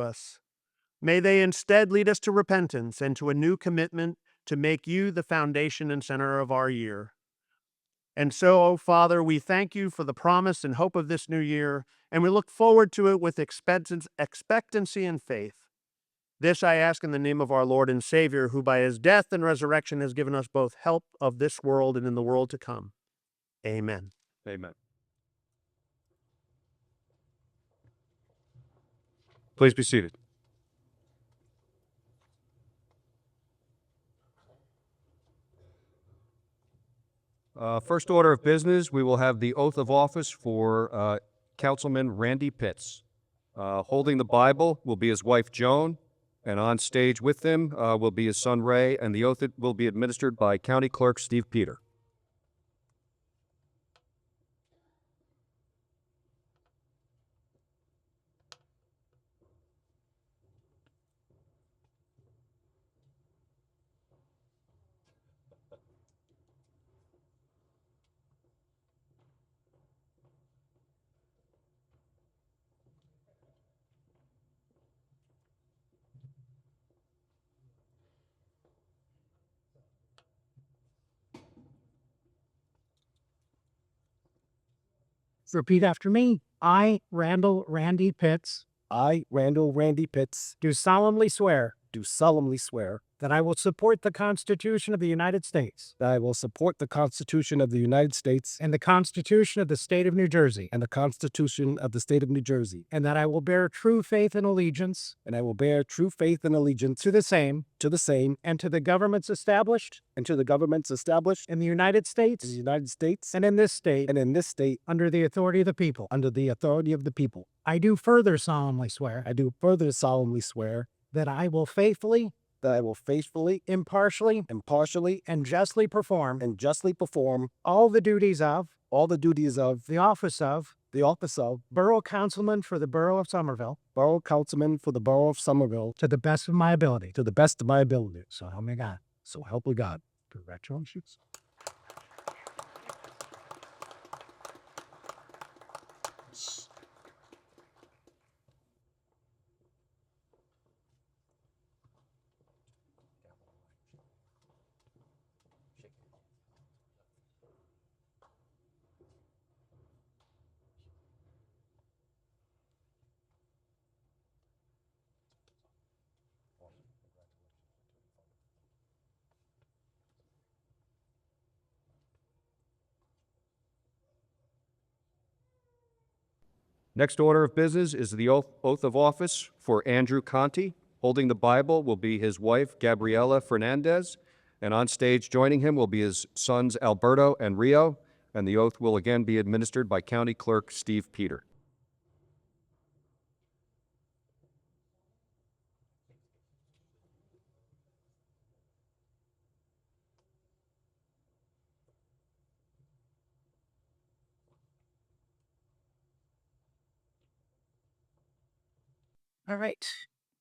us. May they instead lead us to repentance and to a new commitment to make you the foundation and center of our year. And so, O Father, we thank you for the promise and hope of this new year, and we look forward to it with expectance- expectancy and faith. This I ask in the name of our Lord and Savior, who by his death and resurrection has given us both help of this world and in the world to come. Amen. Amen. Please be seated. Uh, First order of business, we will have the oath of office for uh, Councilman Randy Pitts. Uh, Holding the Bible will be his wife Joan, and on stage with them uh, will be his son Ray, and the oath will be administered by County Clerk Steve Peter. Repeat after me. I, Randall Randy Pitts, I, Randall Randy Pitts, do solemnly swear do solemnly swear that I will support the Constitution of the United States that I will support the Constitution of the United States and the Constitution of the State of New Jersey, and the Constitution of the State of New Jersey, and that I will bear true faith and allegiance and I will bear true faith and allegiance to the same to the same and to the governments established and to the governments established in the United in the States United States and in this state and in this state under the authority of the people. under the authority of the people. I do further solemnly swear I do further solemnly swear that I will faithfully, that I will faithfully, impartially, impartially, and justly perform and justly perform all the duties of all the duties of the office of the office of Borough Councilman for the Borough of Somerville Borough Councilman for the Borough of Somerville to the best of my ability. to the best of my ability. So help me God. So help me God. Congratulations. Next order of business is the oath oath of office for Andrew Conti. Holding the Bible will be his wife, Gabriela Fernandez, and on stage joining him will be his sons, Alberto and Rio, and the oath will again be administered by County Clerk Steve Peter. All right.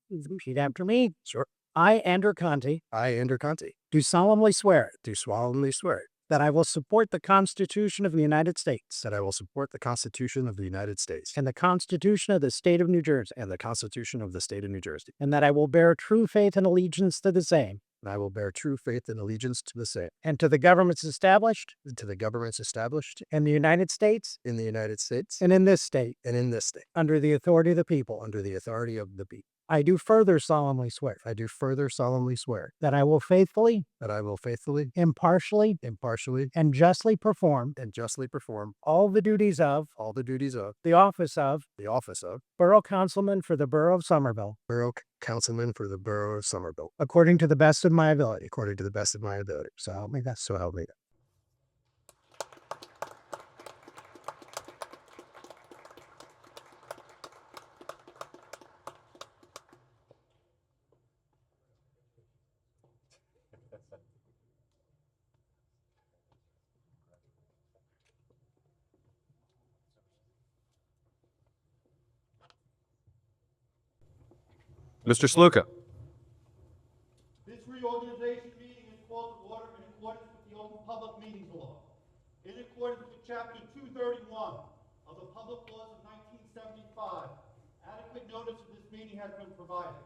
Repeat after me. Sure. I, Andrew Conti, I, Andrew Conti, do solemnly swear do solemnly swear that I will support the Constitution of the United States that I will support the Constitution of the United States and the Constitution of the State of New Jersey, and the Constitution of the State of New Jersey, and that I will bear true faith and allegiance to the same and I will bear true faith and allegiance to the same, and to the governments established and to the governments established in the United States in the United States and in this state and in this state, under the authority of the people. under the authority of the people. I do further solemnly swear I do further solemnly swear that I will faithfully, that I will faithfully, impartially, impartially, and justly perform and justly perform all the duties of all the duties of the office of the office of Borough Councilman for the Borough of Somerville, Borough Councilman for the Borough of Somerville, according to the best of my ability. according to the best of my ability. So help me God. So help me God. Mr. Sluka. This reorganization meeting is called to order in accordance with the Open Public Meetings Law. In accordance with Chapter 231 of the Public Laws of 1975, adequate notice of this meeting has been provided.